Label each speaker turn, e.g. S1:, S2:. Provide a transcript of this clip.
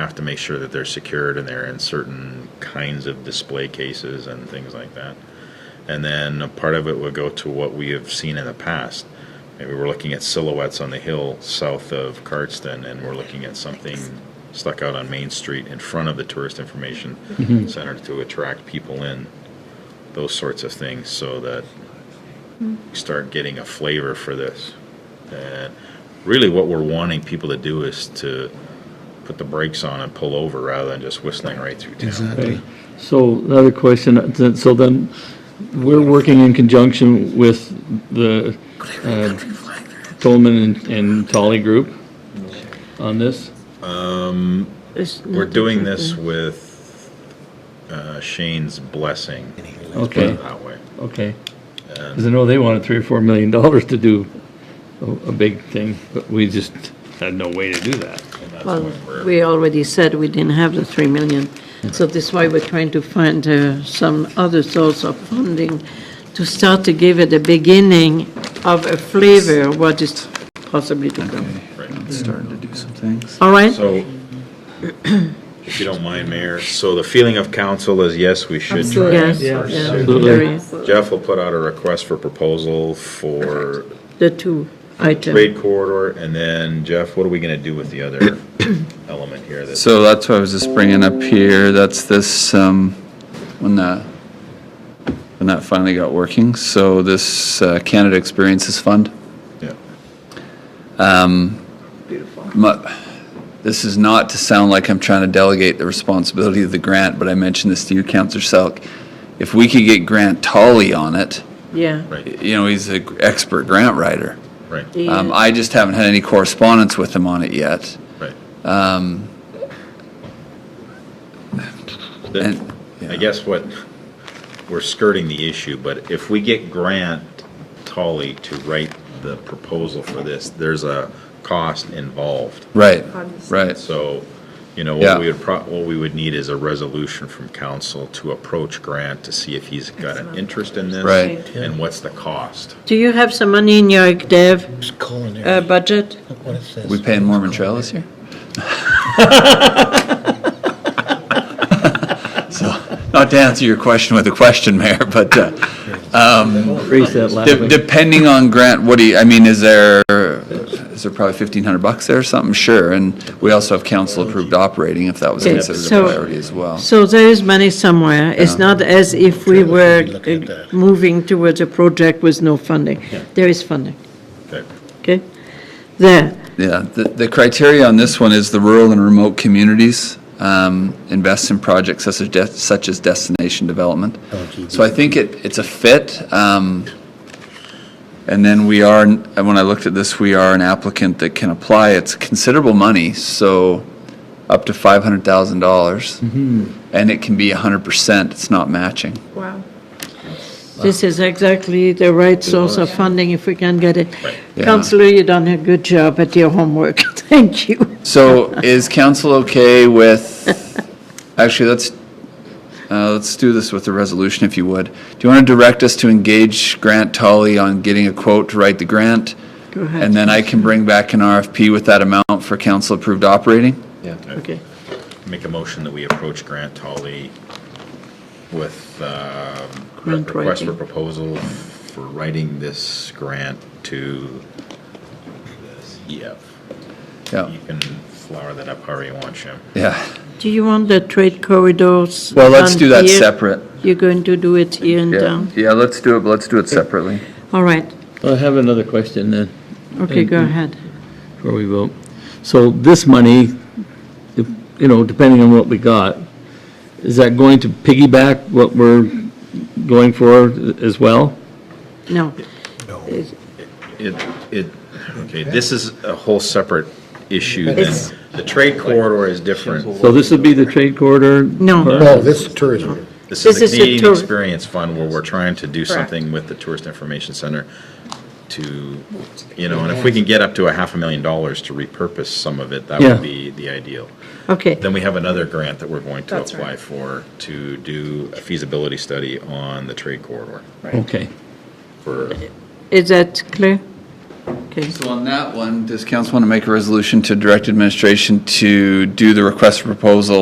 S1: have to make sure that they're secured and they're in certain kinds of display cases and things like that. And then a part of it would go to what we have seen in the past. Maybe we're looking at silhouettes on the hill south of Cardston, and we're looking at something stuck out on Main Street in front of the Tourist Information Center to attract people in, those sorts of things, so that we start getting a flavor for this. And really, what we're wanting people to do is to put the brakes on and pull over rather than just whistling right through town.
S2: Okay.
S3: Exactly.
S2: So another question, uh, then- so then, we're working in conjunction with the uh, Tolman and- and Tolly Group on this?
S1: We're doing this with uh, Shane's blessing. Let's put
S2: Okay,
S1: it that way.
S2: okay. Because I know they wanted three or four million dollars to do a- a big thing, but we just had no way to do that.
S1: And that's
S4: Well,
S1: what we're-
S4: we already said we didn't have the 3 million, so this is why we're trying to find uh, some other source of funding to start to give it a beginning of a flavor, what is possibly to come.
S3: It's Starting to do some things.
S4: All right?
S1: So, if you don't mind, Mayor, so the feeling of council is yes, we should try.
S4: Yes,
S1: and
S4: yeah,
S1: pursue.
S4: very-
S1: Jeff will put out a request for proposal for
S4: the two items.
S1: trade corridor, and then Jeff, what are we gonna do with the other element here? that's-
S3: So that's what I was just bringing up here, that's this, um, when that, when that finally got working, so this uh, Canada Experiences Fund.
S1: Yeah.
S3: My- This is not to sound like I'm trying to delegate the responsibility of the grant, but I mentioned this to you, Counselor Selk. If we could get Grant Tully on it,
S4: Yeah.
S1: Right,
S3: you know, he's an expert grant writer.
S1: right,
S3: Um,
S4: Yeah.
S3: I just haven't had any correspondence with him on it yet.
S1: right.
S3: Um, And-
S1: I guess what, we're skirting the issue, but if we get Grant Tully to write the proposal for this, there's a cost involved.
S3: Right, right.
S1: So, you know,
S3: Yeah.
S1: what we would, pro- what we would need is a resolution from council to approach Grant to see if he's got an interest in this.
S3: Right.
S1: And what's the cost?
S4: Do you have some money in your dev
S5: It's
S4: uh,
S5: culinary.
S4: budget?
S5: Look what it says.
S3: We paying Mormon Trellis here? So, not to answer your question with a question, Mayor, but uh,
S2: Raise that last
S3: de-
S2: week.
S3: depending on grant, what do you, I mean, is there, is there probably 1,500 bucks there or something? Sure, and we also have council-approved operating, if that was
S4: Okay,
S3: considered
S4: so-
S3: a priority as well.
S4: So there is money somewhere. It's not as if we were
S5: Look at
S4: uh,
S5: that.
S4: moving towards a project with no funding. There is funding,
S1: Okay.
S4: okay? There,
S3: Yeah, the, the criteria on this one is the rural and remote communities um, invest in projects such as, de- such as destination development.
S5: LGBT.
S3: So I think it, it's a fit. um, And then we are, and when I looked at this, we are an applicant that can apply. It's considerable money, so up to $500,000. And it can be 100%, it's not matching.
S4: this is exactly the right source of funding if we can get it.
S3: Yeah.
S4: Counselor, you done a good job at your homework. Thank you.
S3: So is council okay with, actually, let's, uh, let's do this with the resolution if you would. Do you want to direct us to engage Grant Tully on getting a quote to write the grant?
S4: Go ahead.
S3: And then I can bring back an RFP with that amount for council-approved operating?
S4: Okay.
S1: Make a motion that we approach Grant Tully with, um, re-
S4: Grant
S1: request for
S4: writing.
S1: proposal for writing this grant to the CF.
S3: Yeah,
S1: You can flower that up however you want, Jim.
S3: yeah.
S4: Do you want the trade corridors?
S3: Well, let's do
S4: done
S3: that
S4: here?
S3: separate.
S4: You're going to do it here and
S3: Yeah,
S4: down?
S3: yeah, let's do it, but let's do it separately.
S4: All right,
S2: I have another question then.
S4: okay, go ahead.
S2: before we vote. So this money, if- you know, depending on what we got, is that going to piggyback what we're going for as well?
S4: No,
S1: It, it, okay, this is a whole separate issue than,
S4: It's-
S1: the trade corridor is different.
S2: So this would be the trade corridor?
S4: No.
S2: part?
S5: No, Oh, this is tourism.
S1: This is the
S4: This is a
S1: Canadian
S4: tour-
S1: Experience Fund where we're trying to do something with the Tourist Information Center to, you know, and if we can get up to a half a million dollars to repurpose some of it, that
S2: Yeah.
S1: would be the ideal.
S4: okay.
S1: Then we have another grant that we're going to apply for to do a feasibility study on the trade corridor
S2: Okay.
S1: for
S4: Is that clear? Okay,
S3: So on that one, does council want to make a resolution to direct administration to do the request for proposal